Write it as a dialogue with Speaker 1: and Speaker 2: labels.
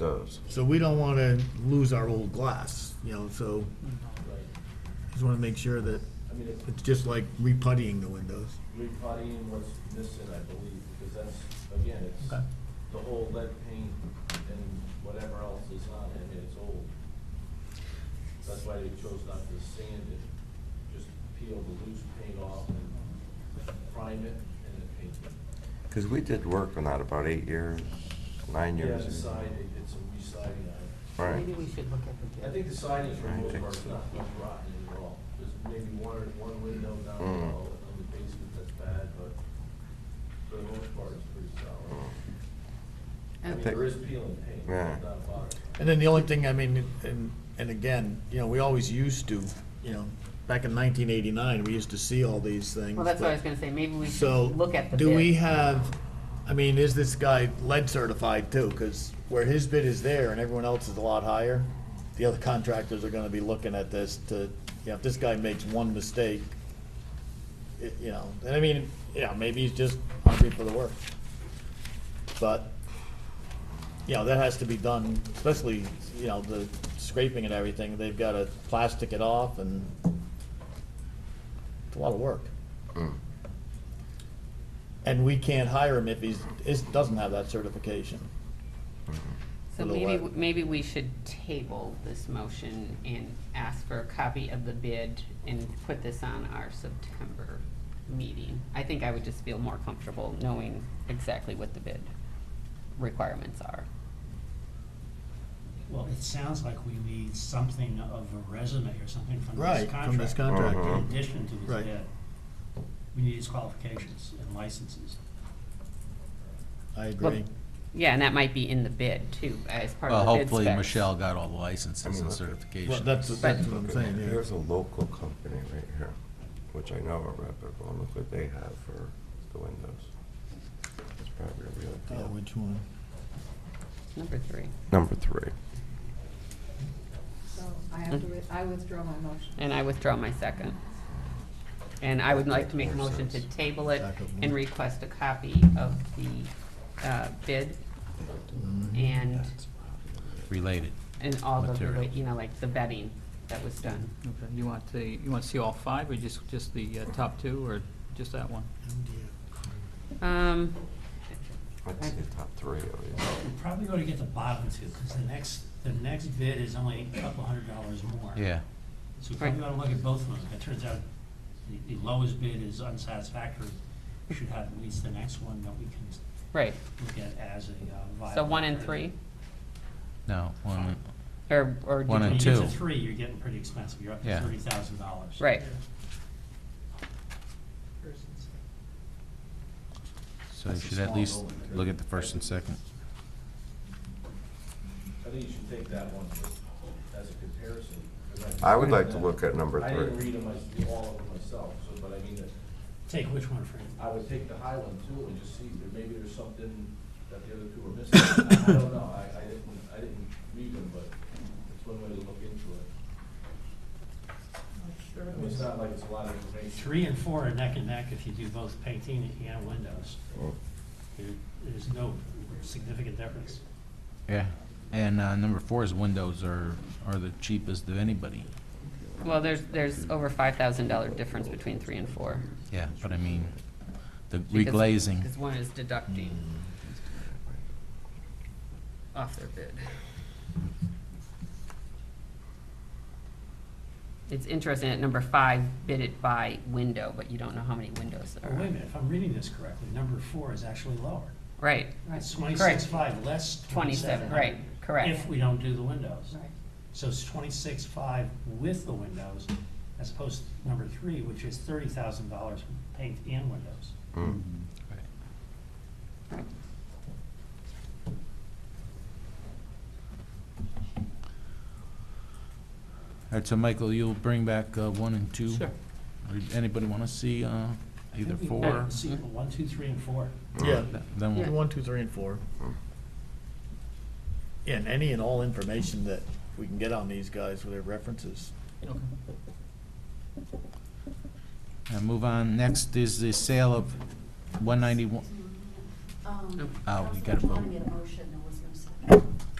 Speaker 1: does.
Speaker 2: So we don't want to lose our old glass, you know, so just want to make sure that
Speaker 3: I mean, it's
Speaker 2: it's just like reputtying the windows.
Speaker 3: repotting and what's missing, I believe, because that's, again, it's
Speaker 2: Okay.
Speaker 3: the whole lead paint and whatever else is on it, and it's old. That's why they chose not to sand it, just peel the loose paint off and prime it and then paint it.
Speaker 1: Because we did work on that about eight years, nine
Speaker 3: Yeah,
Speaker 1: years.
Speaker 3: the side, they did some residing on it.
Speaker 1: Right.
Speaker 4: Maybe we should look at the.
Speaker 3: I think the siding for the
Speaker 1: Trying to
Speaker 3: most
Speaker 1: fix
Speaker 3: part is
Speaker 1: it.
Speaker 3: not much rotten at all. There's maybe one or one window down
Speaker 1: Mm.
Speaker 3: below in the basement that's bad, but for the most part, it's pretty solid.
Speaker 1: Mm.
Speaker 3: I mean,
Speaker 1: Okay.
Speaker 3: there is peeling paint,
Speaker 1: Yeah.
Speaker 3: but not a lot.
Speaker 2: And then the only thing, I mean, and, and again, you know, we always used to, you know, back in 1989, we used to see all these things.
Speaker 4: Well, that's what I was
Speaker 2: but-
Speaker 4: gonna say, maybe we
Speaker 2: So,
Speaker 4: should look at the bid.
Speaker 2: do we have, I mean, is this guy lead certified too? Because where his bid is there and everyone else is a lot higher, the other contractors are gonna be looking at this to, you know, if this guy makes one mistake, it- you know, and I mean, yeah, maybe he's just hungry for the work. But, you know, that has to be done, especially, you know, the scraping and everything, they've gotta plastic it off and it's a lot of work.
Speaker 1: Mm.
Speaker 2: And we can't hire him if he's, is, doesn't have that certification.
Speaker 4: So
Speaker 2: for the
Speaker 4: maybe,
Speaker 2: what?
Speaker 4: maybe we should table this motion and ask for a copy of the bid and put this on our September meeting. I think I would just feel more comfortable knowing exactly what the bid requirements are.
Speaker 5: Well, it sounds like we need something of a resume or something from
Speaker 2: Right,
Speaker 5: this
Speaker 2: from this
Speaker 5: contract.
Speaker 2: contract.
Speaker 1: Uh-huh.
Speaker 5: In
Speaker 1: con-
Speaker 5: addition to
Speaker 2: Right.
Speaker 5: this bid, we need his qualifications and licenses.
Speaker 2: I agree.
Speaker 4: Yeah, and that might be in the bid too, as part
Speaker 6: Well,
Speaker 4: of the bid
Speaker 6: hopefully
Speaker 4: specs.
Speaker 6: Michelle got all the
Speaker 1: I mean,
Speaker 6: licenses and
Speaker 1: look at-
Speaker 2: Well,
Speaker 6: certifications.
Speaker 2: that's, that's what I'm saying, yeah.
Speaker 1: Here's a local company right here, which I know are reputable, and look what they have for the windows. It's probably a real
Speaker 2: Oh,
Speaker 1: deal.
Speaker 2: which one?
Speaker 4: Number three.
Speaker 1: Number three.
Speaker 7: So I have to, wi- I withdraw my motion.
Speaker 4: Hmm? And I withdraw my second. And I would like to make a
Speaker 1: Makes
Speaker 4: motion to
Speaker 1: sense.
Speaker 4: table it
Speaker 2: Back up one.
Speaker 4: and request a copy of the uh, bid and,
Speaker 6: Related.
Speaker 4: and all the,
Speaker 6: Material.
Speaker 4: you know, like the vetting that was done.
Speaker 8: Okay, you want the, you want to see all five, or just, just the uh, top two, or just that one?
Speaker 4: Um,
Speaker 1: I'd say top three of these.
Speaker 5: We're probably going to get the bottom two, because the next, the next bid is only a couple hundred dollars more.
Speaker 6: Yeah.
Speaker 5: So we probably
Speaker 4: Right.
Speaker 5: ought to look at both of them. If it turns out the, the lowest bid is unsatisfactory, we should have at least the next one that we can
Speaker 4: right,
Speaker 5: look at as a uh, viable.
Speaker 4: so one and
Speaker 5: alternative.
Speaker 4: three,
Speaker 6: No, one,
Speaker 4: or, or. did
Speaker 6: One
Speaker 4: you-
Speaker 6: and
Speaker 5: When
Speaker 6: two.
Speaker 5: you get to three, you're getting pretty expensive. You're up to
Speaker 6: Yeah.
Speaker 5: thirty thousand dollars.
Speaker 4: Right,
Speaker 6: so you
Speaker 5: That's a
Speaker 6: should at
Speaker 5: small
Speaker 6: least
Speaker 5: building.
Speaker 6: look at the first and second.
Speaker 3: I think you should take that one just as a comparison. 'cause
Speaker 1: I would like to look at number
Speaker 3: I didn't
Speaker 1: three.
Speaker 3: read them, I s- all of them myself, so, but I mean,
Speaker 5: Take which one for
Speaker 3: I would take the high one too and just see, there maybe there's something that the other two are missing. I I don't know, I, I didn't, I didn't read them, but it's one way to look into it. I mean, it's not like it's a lot of information.
Speaker 5: Three and four are neck and neck if you do both painting and windows.
Speaker 1: Mm.
Speaker 5: There- There's no significant difference.
Speaker 6: Yeah. And uh, number four is windows are, are the cheapest of anybody.
Speaker 4: well, there's, there's over five thousand dollar difference between three and four.
Speaker 6: Yeah, but I mean, the
Speaker 4: because-
Speaker 6: reglazing.
Speaker 4: Because one is deducting off their bid. It's interesting at number five, bid it by window, but you don't know how many windows there
Speaker 5: Well, Wait a
Speaker 4: are.
Speaker 5: minute, if I'm reading this correctly, number four is actually lower.
Speaker 4: Right,
Speaker 5: It's twenty-six five less
Speaker 4: twenty-seven,
Speaker 5: twenty-seven hundred.
Speaker 4: right, correct.
Speaker 5: If we don't do the windows.
Speaker 4: Right.
Speaker 5: So it's twenty-six five with the windows, as opposed to number three, which is thirty thousand dollars paint and windows.
Speaker 1: Mm.
Speaker 6: Right. All right, so Michael, you'll bring back uh, one and two?
Speaker 8: Sure.
Speaker 6: Or Anybody want to see uh,
Speaker 5: I
Speaker 6: either
Speaker 5: think we-
Speaker 6: four?
Speaker 5: See, one, two, three, and four.
Speaker 2: Yeah,
Speaker 6: Th- Then
Speaker 2: Yeah,
Speaker 6: we'll,
Speaker 2: one, two, three, and four. And any and all information that we can get on these guys with their references.
Speaker 6: uh, move on. Next is the sale of 191,
Speaker 9: Um,
Speaker 6: Oh, we gotta
Speaker 7: Um,
Speaker 9: Councilman Klein
Speaker 6: Oh, vote.
Speaker 9: made a motion, there was no second.